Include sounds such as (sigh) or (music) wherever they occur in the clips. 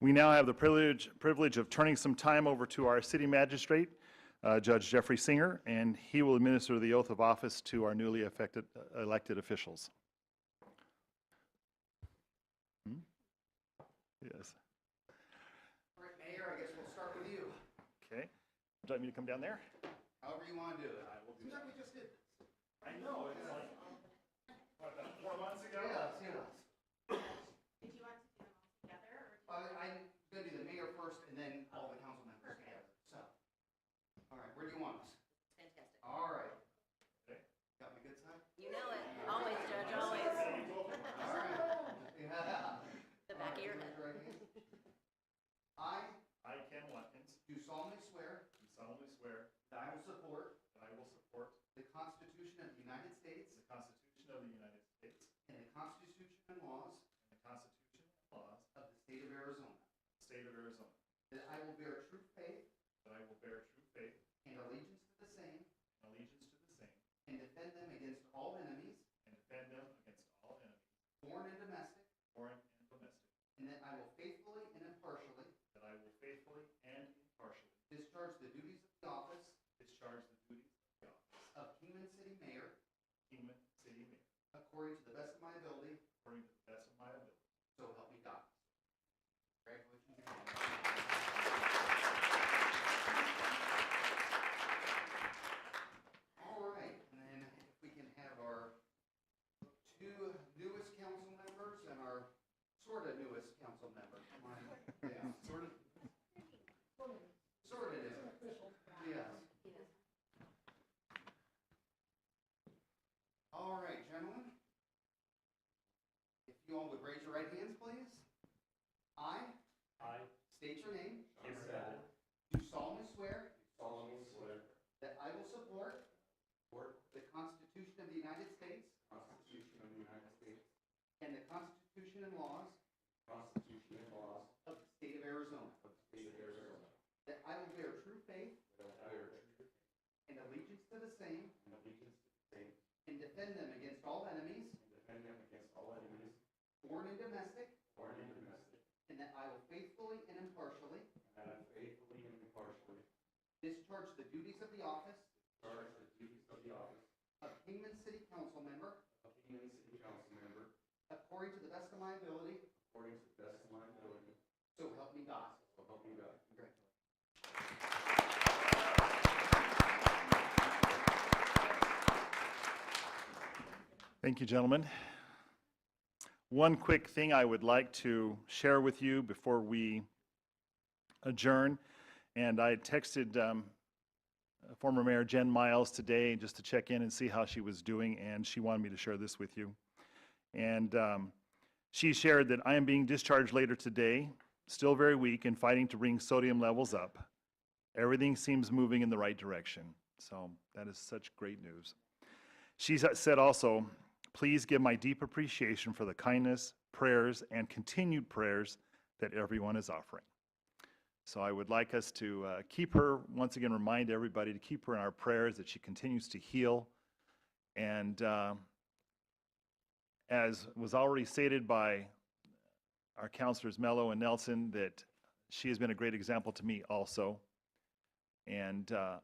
We now have the privilege, privilege of turning some time over to our city magistrate, uh, Judge Jeffrey Singer, and he will administer the oath of office to our newly affected, uh, elected officials. Hmm? Yes. All right, Mayor, I guess we'll start with you. Okay. Would you like me to come down there? However you want to do it. I will do that. Seems like we just did. I know, it's like, what, about four months ago? Yeah, it's, you know, Did you want to do them I- all together or? I'm gonna do the mayor first and then all the council members together, so. All right, where do you want us? Fantastic. All right. Okay. Got me good (laughs) side? You know it. Always, Judge, always. All (laughs) right. Yeah. The back of your All right, head. raise right hand. I I, Ken Watkins, do solemnly swear do solemnly swear that I will support that I will support the Constitution of the United States the Constitution of the United States and the Constitution and laws and the Constitution and laws of the state of Arizona, of the state of Arizona, that I will bear true faith that I will bear true faith and allegiance to the same and allegiance to the same and defend them against all enemies, and defend them against all enemies, foreign and domestic, foreign and domestic, and that I will faithfully and impartially that I will faithfully and impartially discharge the duties of the office discharge the duties of the office of Kingman City Mayor of Kingman City Mayor according to the best of my ability, according to the best of my ability. so help me God. Congratulations. All right, and then if we can have our two newest council members and our sort of newest council member. Come on. Yeah, sort of. Sort of is. Yes. All right, gentlemen. If you all would raise your right hands, please. I I, state your name. Kim Sadler, Do solemnly swear solemnly swear to that I will support support the Constitution of the United States the Constitution of the United States, and the Constitution and laws the Constitution and laws of the state of Arizona, of the state of Arizona, that I will bear true faith that I bear true and allegiance to the same and allegiance to the same, and defend them against all enemies, and defend them against all enemies, foreign and domestic, foreign and domestic, and that I will faithfully and impartially and that I faithfully and impartially discharge the duties of the office discharge the duties of the office of Kingman City Council Member of Kingman City Council Member according to the best of my ability, according to the best of my ability, so help me God. so help me God. Congratulations. Thank you, gentlemen. One quick thing I would like to share with you before we adjourn, and I texted um, former Mayor Jen Miles today just to check in and see how she was doing, and she wanted me to share this with you. And um, she shared that I am being discharged later today, still very weak and fighting to bring sodium levels up. Everything seems moving in the right direction, so that is such great news. She sa- said also, please give my deep appreciation for the kindness, prayers, and continued prayers that everyone is offering. So I would like us to uh, keep her, once again, remind everybody to keep her in our prayers, that she continues to heal. And uh, as was already stated by our counselors Mello and Nelson, that she has been a great example to me also. And uh,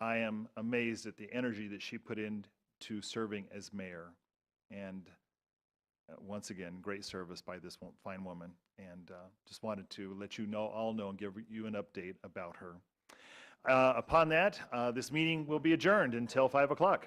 I am amazed at the energy that she put in to serving as mayor. And uh, once again, great service by this wo- fine woman. And uh, just wanted to let you know, all know, and give you an update about her. Uh, Upon that, uh, this meeting will be adjourned until 5 o'clock.